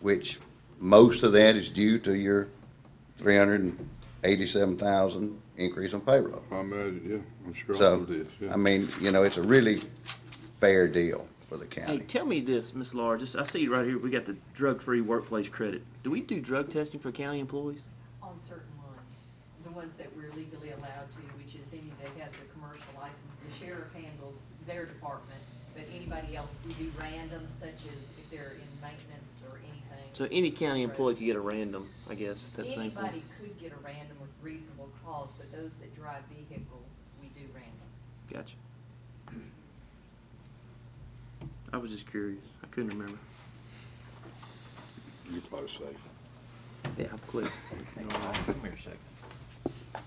which most of that is due to your three hundred and eighty-seven thousand increase in payroll. I imagine, yeah, I'm sure all So, of this, I yeah. mean, you know, it's a really fair deal for the Hey, county. tell me this, Miss Laura. Just I see right here we got the drug-free workplace credit. Do we do drug testing for county employees? on certain ones, the ones that we're legally allowed to, which is any that has a commercial license. The sheriff handles their department, but anybody else, we do random, such as if they're in maintenance or anything. So any county employee could get a random, I guess, at that same point. Anybody could get a random with reasonable cause, but those that drive vehicles, we do random. Gotcha. I was just curious. I couldn't remember. You're probably safe. Yeah, I'm clear. Come here a second.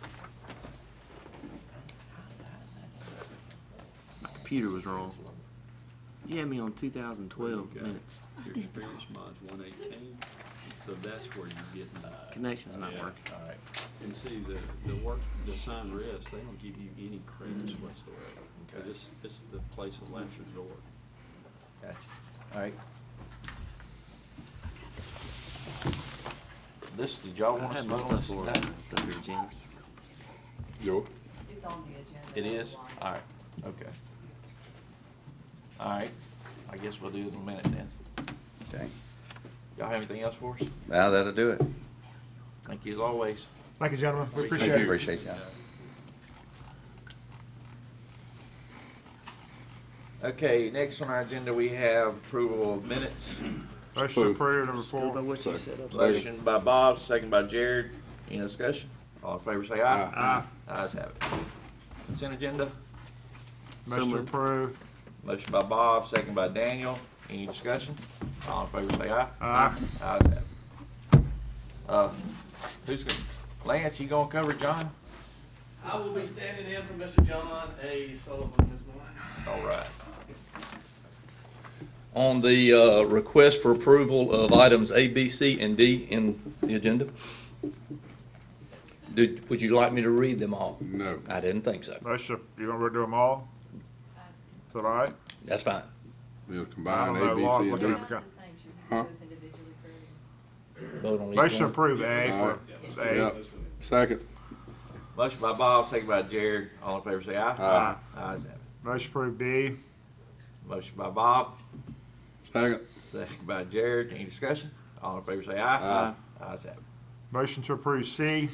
My computer was wrong. You had me on 2012 minutes. Your experience mod's one eighteen, so that's where you get the. Connection's not Yeah. working. All right. And see, the, the work, the sign rest, they don't give you any credits whatsoever. Cause Okay. it's, it's the place of last resort. Gotcha. All right. This, did y'all I want us had to my vote on this stuff Laura. tonight? Stuff here, Jimmy. Joe? It's on the agenda. It is? online. All right, okay. All right, I guess we'll do it in a minute then. Okay, Y'all have anything else for us? now that'll do it. Thank you as always. Thank you, gentlemen. We Thank you. appreciate it. Appreciate that. Okay, next on our agenda, we have approval of minutes. Motion to approve number Still know four. what you said up. Motion by Bob, second by Jared. Any discussion? All in favor, say aye. Aye. Ayes have it. Consent agenda, Motion to moved. approve. motion by Bob, second by Daniel. Any discussion? All in favor, say aye. Aye. Ayes have it. Uh, who's gonna, Lance, you gonna cover John? I will be standing in for Mr. John A. Sullivan this morning. All right. On the uh, request for approval of items A, B, C, and D in the agenda, Did- would you like me to read them all? No. I didn't think so. Motion, you want to do them all? Is that all right? That's fine. They'll I combine don't know, A, B, Lord, C, and look D. at They're it. not the same, should we do those individually, Greg? Vote on each Motion to one. approve A for, Yeah, A. second, Motion by Bob, second by Jared. All in favor, say aye. Aye. Ayes have it. Motion to approve B. Motion by Bob, second, second by Jared. Any discussion? All in favor, say aye. Aye. Ayes have it. Motion to approve C.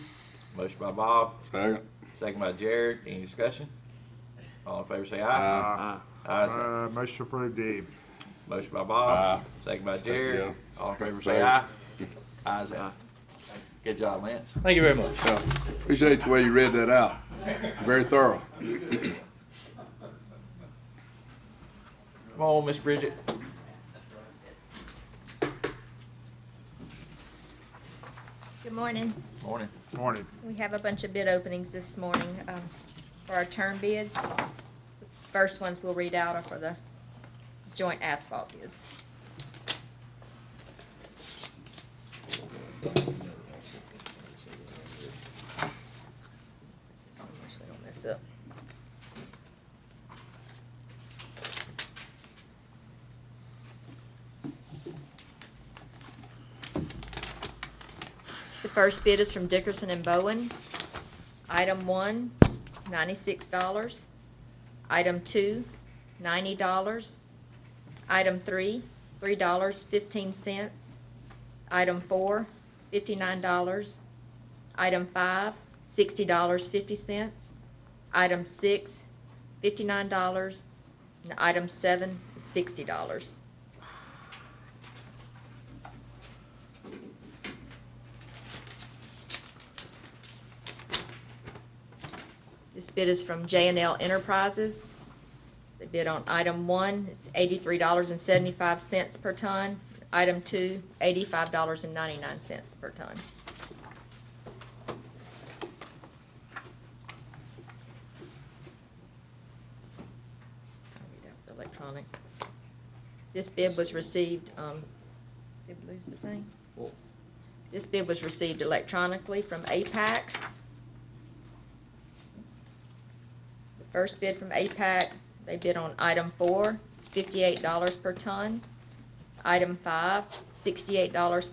Motion by Bob, second. second by Jared. Any discussion? All in favor, say aye. Aye. Ah, Ayes have it. Uh, motion to approve D. Motion by Bob, second by Second, Jared. yeah. All in favor, say Second. aye. Ayes have it. Good job, Lance. Thank you very much. Yeah. Appreciate the way you read that out. Very thorough. Come on, Miss Bridget. Good morning. Morning. Morning. We have a bunch of bid openings this morning um, for our term bids. First ones we'll read out are for the joint asphalt bids. So much we don't mess up. The first bid is from Dickerson and Bowen. Item one, ninety-six dollars. Item two, ninety dollars. Item three, three dollars fifteen cents. Item four, fifty-nine dollars. Item five, sixty dollars fifty cents. Item six, fifty-nine dollars. And item seven, sixty dollars. This bid is from J and L Enterprises. The bid on item one, it's eighty-three dollars and seventy-five cents per ton. Item two, eighty-five dollars and ninety-nine cents per ton. I'll read out the Electronic. This bid was received, um, did we lose the thing? This bid was received electronically from APAC. The first bid from APAC, they bid on item four, it's fifty-eight dollars per ton. Item five, sixty-eight dollars